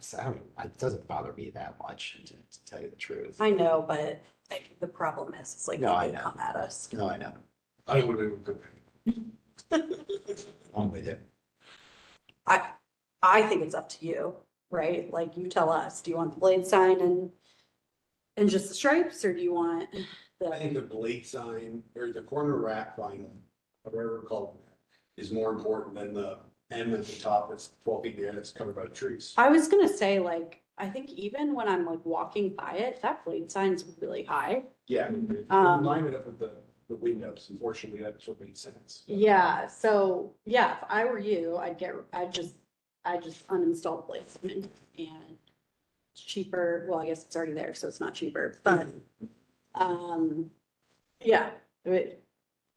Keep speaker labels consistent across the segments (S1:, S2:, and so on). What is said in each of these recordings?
S1: So I don't, it doesn't bother me that much, to to tell you the truth.
S2: I know, but like, the problem is, it's like, they
S1: No, I know.
S2: come at us.
S1: No, I know.
S3: I would have,
S1: I'm with it.
S2: I, I think it's up to you, right? Like, you tell us, do you want the blade sign and, and just the stripes, or do you want
S3: I think
S2: the,
S3: the blade sign or the corner rack vinyl, whatever it's called, is more important than the M at the top that's twelve feet in the air that's covered by trees.
S2: I was gonna say, like, I think even when I'm like walking by it, that blade sign's really high.
S3: Yeah,
S2: Um,
S3: line it up with the, the windows, unfortunately, that's what made sense.
S2: Yeah, so, yeah, if I were you, I'd get, I'd just, I'd just uninstall Blazeman and it's cheaper, well, I guess it's already there, so it's not cheaper, but,
S1: Mm-hmm.
S2: um, yeah, it-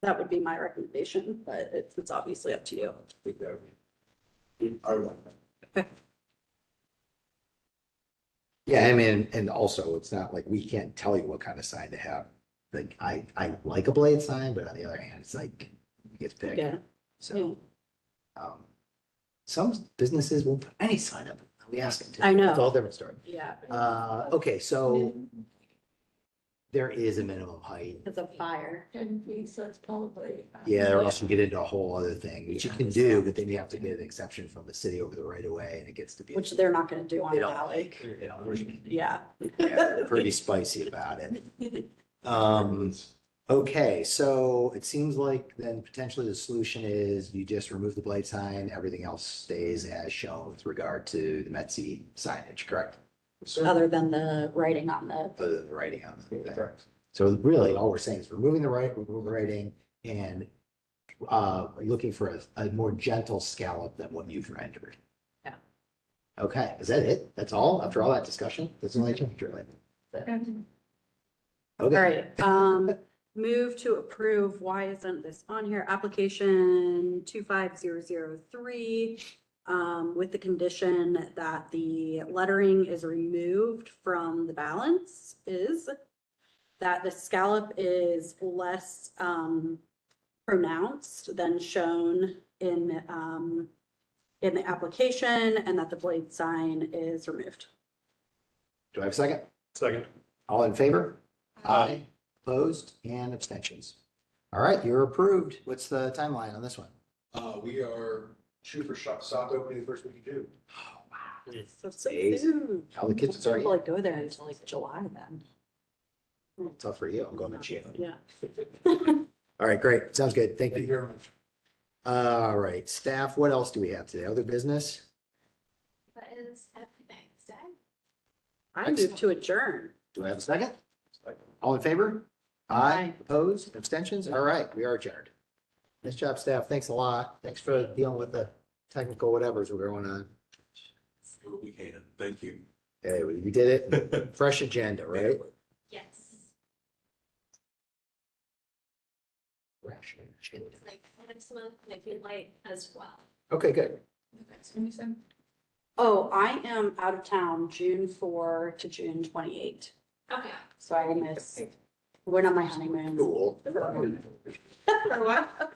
S2: that would be my recommendation, but it's, it's obviously up to you.
S3: I think that would be- I would like that.
S1: Yeah, I mean, and also it's not like we can't tell you what kind of sign to have. Like I, I like a blade sign, but on the other hand, it's like, it's big.
S2: Yeah,
S1: So, um, some businesses won't put any sign up. We ask them to.
S2: I know.
S1: It's all different story.
S2: yeah,
S1: Uh, okay, so there is a minimum height.
S2: it's a fire.
S4: Ten feet, so it's probably. uh,
S1: Yeah, or else you get into a whole other thing, which you can do, but then you have to get an exception from the city over the right of way and it gets to be.
S2: Which they're not gonna do on
S1: They don't
S2: Valley.
S1: like, you know,
S2: Yeah.
S1: yeah, they're pretty spicy about it. Um, okay, so it seems like then potentially the solution is you just remove the blade sign, everything else stays as shown with regard to the Metsi signage, correct?
S3: So,
S2: Other than the writing on the,
S1: The writing on the thing.
S3: correct.
S1: So really, all we're saying is removing the right, remove the writing and uh, looking for a, a more gentle scallop than what you've rendered.
S2: Yeah.
S1: Okay, is that it? That's all? After all that discussion? That's the only change, really?
S4: And
S2: all
S1: Okay,
S2: right, um, move to approve, why isn't this on here? Application two five zero zero three. Um, with the condition that the lettering is removed from the balance is. That the scallop is less, um, pronounced than shown in, um. In the application and that the blade sign is removed.
S1: do I have a second?
S3: Second.
S1: All in favor?
S3: Aye.
S1: Opposed and abstentions. All right, you're approved. What's the timeline on this one?
S3: Uh, we are shoot for shop, soft opening the first week of June.
S1: Oh, wow.
S2: So soon.
S1: Amazing. How the kids are,
S2: People, Like go there until like July then.
S1: tough for you. I'm going to June.
S2: Yeah.
S1: All right, great. Sounds good. Thank
S3: Thank
S1: you.
S3: you very much.
S1: All right, staff, what else do we have today? Other business?
S4: That is everything, is that?
S2: I move to adjourn.
S1: Do I have a second? All in favor? Aye,
S2: Aye.
S1: opposed, abstentions? All right, we are adjourned. Nice job, staff. Thanks a lot. Thanks for dealing with the technical whatevers were going on.
S3: We can, thank you.
S1: Hey, we we did it. Fresh agenda, right?
S4: Yes.
S1: Fresh agenda.
S4: It's like next month, maybe light as well.
S1: Okay, good.
S2: Oh, I am out of town June four to June twenty-eight,
S4: Okay.
S2: so I will miss, went on my honeymoon.
S1: Cool.
S2: For what?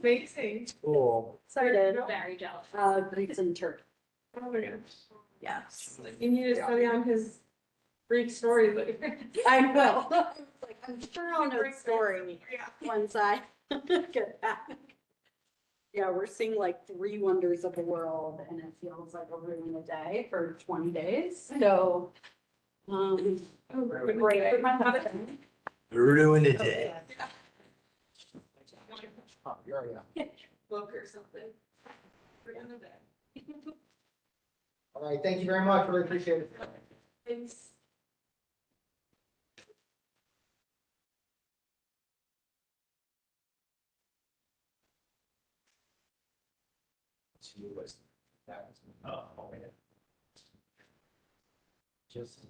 S4: Amazing.
S1: Cool.
S2: Sorry, did.
S4: Very jealous.
S2: Uh, Greeks and Turks,
S5: Oh my gosh.
S2: yes.
S5: You need to study on his Greek story later.
S2: I will. Like, I'm sure I'll know the story
S5: Yeah.
S2: once I get back. Yeah, we're seeing like three wonders of the world and it feels like a ruin a day for twenty days, so. Um,
S5: Oh, ruined
S2: great
S5: it.
S2: for my husband.
S1: Ruined the day. Oh, you're already up.
S5: Book or something. For another day.
S1: All right, thank you very much. Really appreciate it.
S5: Thanks.
S1: She was- that was- Just.